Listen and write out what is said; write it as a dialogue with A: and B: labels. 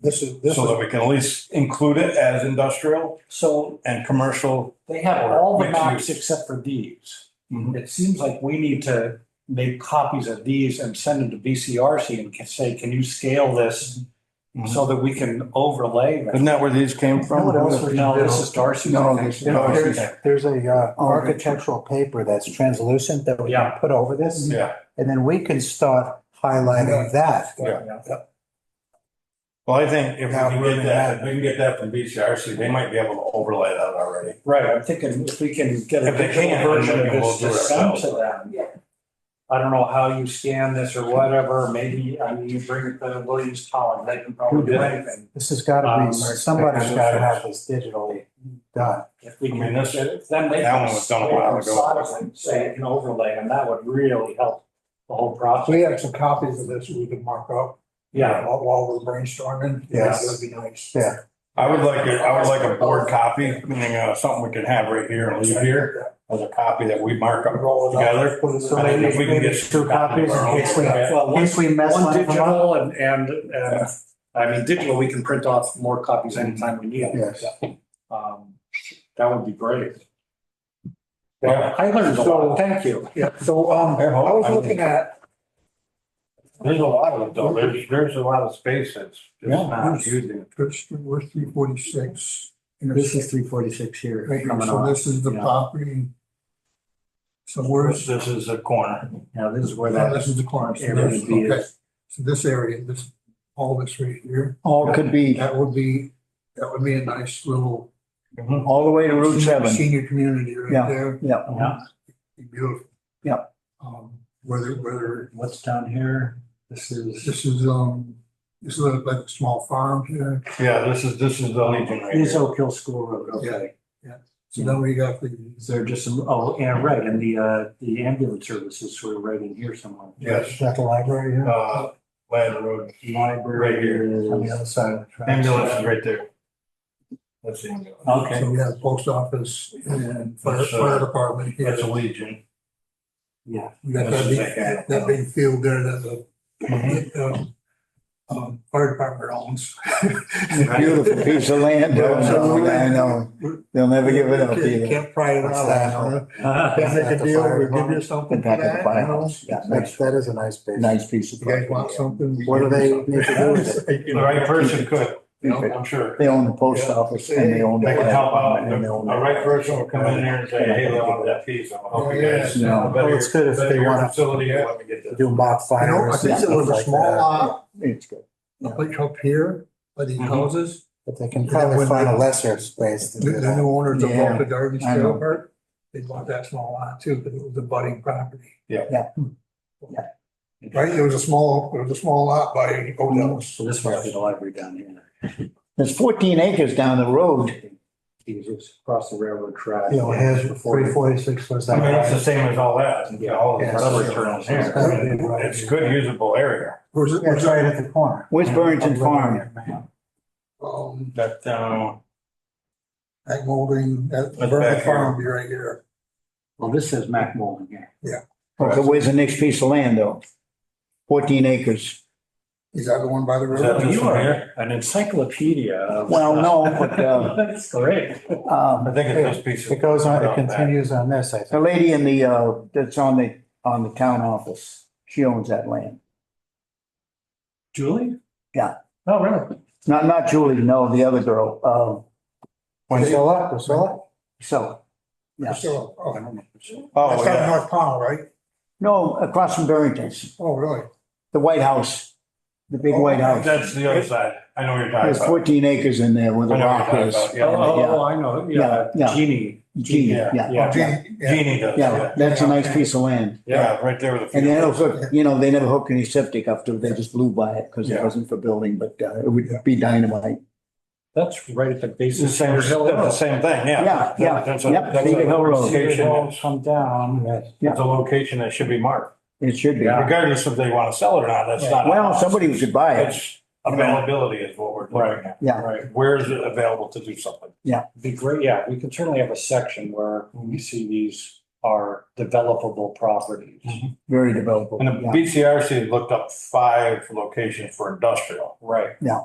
A: This is, this
B: so
A: is,
B: that we can at least include it as industrial
C: So
B: and commercial.
C: they have all the
B: Mixed use.
C: maps except for these.
B: Mhm.
C: It seems like we need to make copies of these and send them to VCRC and can say, can you scale this so that we can overlay that?
B: Mm-hmm. Isn't that where these came from?
A: What else would you
C: No,
A: do?
C: this is Darcy.
B: No, this is-
A: No,
B: no,
A: there's,
B: okay.
A: there's a uh,
B: Oh, okay.
A: architectural paper that's translucent that we can
C: Yeah.
A: put over this.
B: Yeah,
A: And then we can start highlighting that.
B: Yeah. well, I think if we
A: Yeah,
B: can
A: we're
B: get
A: gonna
B: that,
A: have-
B: if we can get that from BCRC, they might be able to overlay that already.
C: Right, I'm thinking if we can get a
B: If they
C: digital
B: can,
C: version of
B: maybe we'll
C: this
B: do
C: to
B: it
C: send to
B: ourselves.
C: them. I don't know how you scan this or whatever, maybe, I mean, you bring it to Williams College, they can
B: Who
C: probably do
B: did it?
C: anything.
A: This has gotta
C: Um,
A: be, somebody's gotta have this digitally done.
C: If we
B: I
C: can
B: mean,
C: get
B: this-
C: it, then they.
B: that
C: can
B: one was done a while ago.
C: sort of Say it can overlay, and that would really help the whole process.
D: We have some copies of this we could mark up.
C: Yeah,
D: While while we're brainstorming.
A: Yes.
D: That would be nice.
A: Yeah.
B: I would like, it- I would like a board copy, meaning uh, something we could have right here and leave here as a copy that we mark up
D: Roll it up.
B: together.
D: Put it
A: So
B: I think
D: in.
A: maybe,
B: if we can
A: maybe
B: get
A: two copies in case we, in
C: well, one,
A: case we mess
C: one
A: one of them up.
C: digital and, and, and, I mean, digital, we can print off more copies anytime we need.
A: Yes.
C: Um, that would be great.
B: Yeah.
C: I learned a lot, thank you.
D: Yeah, so, um, I was looking at,
B: There's a lot of, there's, there's a lot of space that's just not using.
D: first, we're three forty-six.
E: This is three forty-six here.
D: Right here,
E: coming
D: so
E: off.
D: this is the
C: yeah.
D: property. So where's,
B: This is a corner.
C: Now, this is where
D: yeah,
C: that
D: this is the corner. So
C: area
D: this-
C: would be.
D: okay. So this area, this, all this right here,
E: All could be,
D: that would be, that would be a nice little.
B: Mm-hmm.
E: all the way to Route
D: senior-
E: seven.
D: Senior community right
E: Yeah.
D: there.
E: Yeah,
C: Yeah,
D: Be Beautiful.
E: Yeah.
D: Um, whether, whether
C: what's down here? This is,
D: This is, um, this is like a small farm here.
B: Yeah, this is, this is the Legion right
C: is
B: here.
C: Oak Hill School Road, okay.
D: So then we got the,
C: Is there just some, oh, and right, and the, uh, the ambulance services were right in here somewhere.
B: Yes,
A: At the library, yeah.
B: uh, Land Road,
C: Library
B: Right here.
C: is-
A: On the other side of the tracks.
B: ambulance is right there. That's the ambulance.
C: Okay,
D: so we have post office and fire,
B: That's, uh,
D: fire department here.
B: That's a Legion.
C: yeah,
D: We got
B: This
D: that
B: is
D: big,
B: like a-
D: that big field there that
B: Mhm.
D: the, um, um, fire department owns.
E: beautiful piece of land.
D: Yeah.
E: I know. They'll never give it up
D: Can't-
E: either.
D: Can't pry it
A: What's
D: out.
A: that?
C: yeah.
D: Can't make a deal, we'll give you something
E: Put
D: for
E: back at
D: that,
E: the
D: you know?
E: firehouse. Yeah,
A: That's,
E: nice,
A: that is a nice base.
E: nice piece of.
D: You guys want
E: property.
D: something? we
A: What do
D: give
A: they
D: you
A: need to do with
D: something.
B: The right person could,
D: You know?
B: I'm sure.
E: They own the post office and they own. the
B: They can help out.
E: and they own
B: The right person will come in here and say, hey, they want that piece. I'll help you guys.
E: Yeah. No.
B: Better-
A: Well, it's good if
B: better
A: they
B: your
A: wanna-
B: Facility, yeah, let me get this.
A: Do mock
D: I know, I
A: fires and
D: think it was
A: stuff
D: a
A: like
D: small
A: that.
D: lot,
E: It's good.
D: up up here, by these
E: Mm-hmm.
B: Mhm.
D: houses.
A: But they can probably find a lesser space to
D: The,
A: do
D: the
A: that.
D: new owners of
E: Yeah,
D: the Gardens
E: I know.
D: Trailer Park, they bought that small lot too, because it was a budding property. Hmm.
B: Yeah.
E: Yeah.
D: Right, there was a small, there was a small lot by Odell's.
C: So this must be the library down here.
E: There's fourteen acres down the road.
C: Jesus, across the railroad track.
A: You know, his three forty-six was
B: I
A: that.
B: mean, it's the
A: right?
B: same as all that, you know, all the
A: Yeah.
B: rubber turtles here.
A: It's gotta be right.
B: It's good usable area.
D: Where's it,
A: Yeah,
D: where's
A: It's right
D: that?
A: at the corner.
E: Where's Burrington Farm?
A: Farm.
D: Um,
B: That, um,
D: that molding,
B: That's
D: that Burger
B: back here.
D: Farm would be right here.
C: Well, this says Mac Molding here.
E: Okay, where's the next piece of land though? Fourteen acres.
D: Is that the one by the
B: Is that
D: river?
B: the-
C: You are an encyclopedia of.
E: Well, no, but, uh,
C: That's great.
E: Um,
B: I think it's this piece.
A: It goes on, it continues on this, I
E: The
A: think.
E: lady in the, uh, that's on the, on the town office, she owns that land.
C: Julie?
E: Yeah.
C: Oh, really?
E: Not, not Julie, no, the other girl, um,
A: Priscilla, Priscilla?
E: so. yeah.
D: So, oh,
B: Oh,
D: That's down in
B: yeah.
D: North Pownell, right?
E: No, across from Barrington's,
D: Oh, really?
E: the White House, the big White House.
B: That's the other side. I know what you're talking
E: There's
B: about.
E: fourteen acres in there where the
B: I know what you're
E: rock
B: talking
E: is.
B: about,
C: Oh,
B: yeah.
E: Yeah.
C: oh, oh, I know, yeah,
E: Yeah, yeah.
C: Genie.
E: Gee,
B: Yeah.
E: yeah,
C: Yeah,
D: Gene- yeah.
B: Genie does,
E: yeah,
B: yeah.
E: that's a nice piece of land.
B: Yeah, right there with the.
E: And they
B: field.
E: don't hook, you know, they never hooked any septic up to it, they just blew by it because it
B: Yeah.
E: wasn't for building, but uh, it would be dynamite.
C: that's right at the
B: It's
C: base
B: the
C: of
B: same,
C: Cedar
B: that's
C: Hill
B: the
C: Road.
B: same thing, yeah.
E: Yeah, yeah,
B: That's a-
E: yep,
B: that's a
E: Cedar Hill Road.
B: location that's-
C: Come down,
B: It's a location that should be marked,
E: It should be.
C: Yeah.
B: regardless if they want to sell it or not, that's not.
E: Well, somebody should buy it,
B: It's availability is what we're looking at.
E: yeah.
C: right,
B: Where is it available to do something?
C: be great, yeah, we can certainly have a section where we see these are developable properties.
E: Very developable.
B: And the
E: yeah.
B: BCRC looked up five locations for industrial.
C: Right.